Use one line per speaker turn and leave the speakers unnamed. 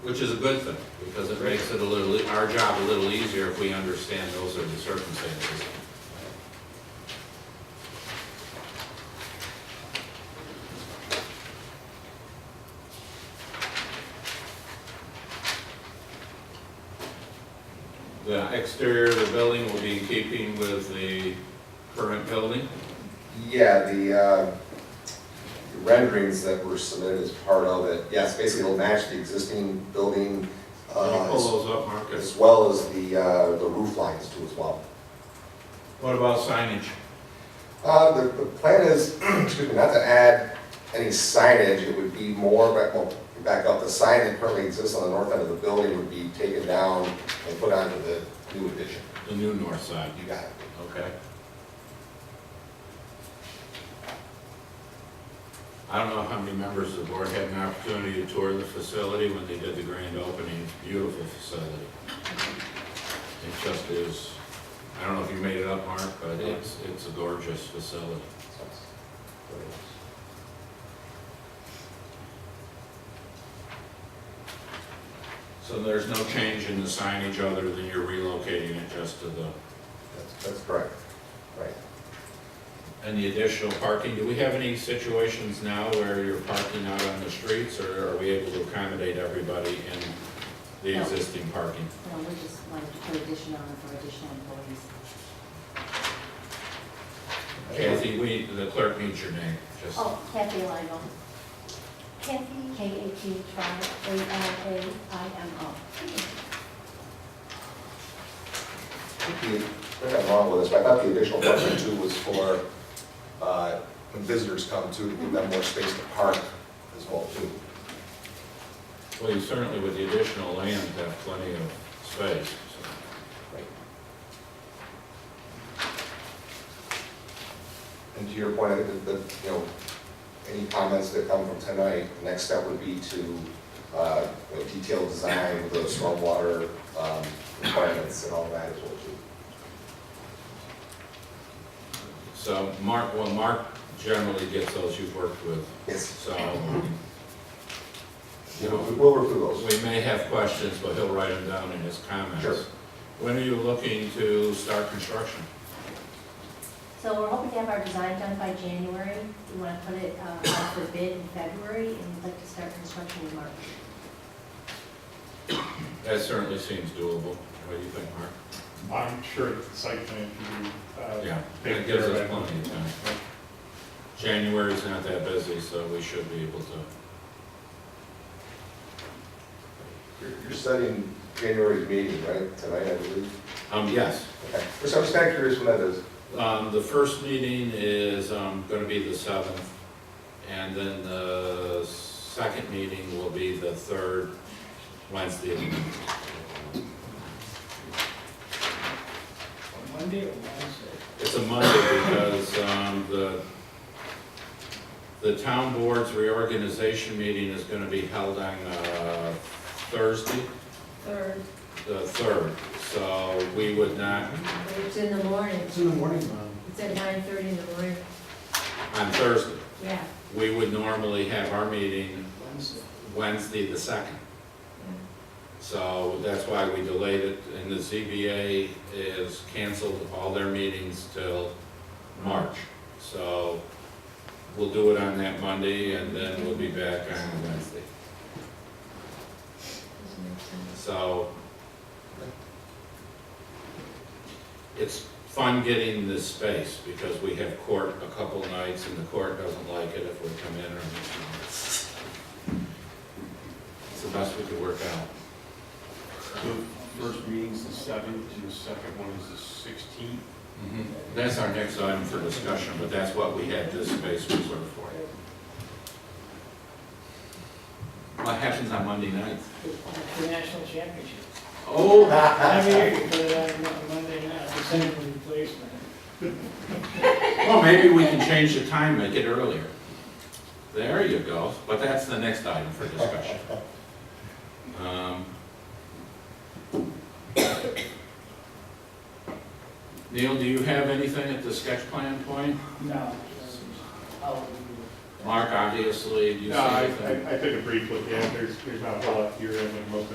Which is a good thing, because it makes it a little, e- our job a little easier if we understand those are the circumstances. The exterior of the building will be in keeping with the current building.
Yeah, the uh, the renderings that were submitted as part of it, yes, basically it'll match the existing building
Can you
uh,
pull those up, Marcus?
as well as the, uh, the roof lines too as well.
What about signage?
Uh, The, the plan is, excuse me, not to add any signage, it would be more, back, well, back up, the sign that currently exists on the north end of the building would be taken down and put onto the new addition.
The new north side.
You got it.
Okay. I don't know how many members of the board had an opportunity to tour the facility when they did the grand opening. It's a Beautiful facility. It just is, I don't know if you made it up, Mark, but it's, it's a gorgeous facility. So there's no change in the signage other than you're relocating it just to the,
That's, that's correct, right.
and the additional parking. Do we have any situations now where you're parking out on the streets or are we able to accommodate everybody in the
No.
existing parking?
No, we just wanted to put addition on for additional employees.
Kathy, we, the clerk needs your name, just,
Oh, Kathy Lino. Kathy, K-A-T-H-I-A-I-M-O.
think the- I think I'm wrong with this, but I thought the additional parking too was for, uh, when visitors come too, to give them more space to park as well too.
well, you certainly with the additional land have plenty of space. so.
Right. And to your point, I think that, that, you know, any comments that come from tonight, the next step would be to, uh, you know, detailed design, the stormwater, um, requirements and all that as well too.
So Mark, well, Mark generally gets those you've worked with,
Yes,
so
you know, we- we'll work through those.
we may have questions, but he'll write them down in his comments.
Sure.
When are you looking to start construction?
So we're hoping to have our design done by January. We want to put it uh, out for bid in February, and we'd like to start construction in March.
That certainly seems doable. What do you think, Mark?
I'm sure that the site plan can be, uh.
Yeah, that
taken
gives
care
us
of.
plenty of time. January's not that busy, so we should be able to.
You're you're studying January's meeting, right, tonight, I believe?
Um, yes,
Okay, so I'm just kind of curious when that is.
um, the first meeting is, um, gonna be the seventh, and then the second meeting will be the third Wednesday. of the month.
Monday or Wednesday?
It's a Monday because, um, the, the town board's reorganization meeting is gonna be held on, uh, Thursday,
Third,
the third, so we would not
it's in the morning.
It's in the morning, Mom.
It's at 9:30 in the morning.
on Thursday.
Yeah.
We would normally have our meeting
Wednesday.
Wednesday the second. So that's why we delayed it, and the ZBA is canceled all their meetings till March. So we'll do it on that Monday, and then we'll be back on Wednesday. So it's fun getting this space, because we have court a couple nights, and the court doesn't like it if we come in or anything. It's the best we could work out.
The first meeting's the seventh, and the second one is the sixteenth.
Mm-hmm. That's our next item for discussion, but that's what we had this space reserved for. What happens on Monday nights?
The national championship.
Oh,
Every year you put it on Mon- Monday night, the same replacement.
well, maybe we can change the time, make it earlier. There you go, but that's the next item for discussion. Um, Neil, do you have anything at the sketch plan point?
No. I'll do
Mark, obviously, do you see
No, I,
anything?
I I took a brief look, yeah, there's, there's not a whole lot here, and most of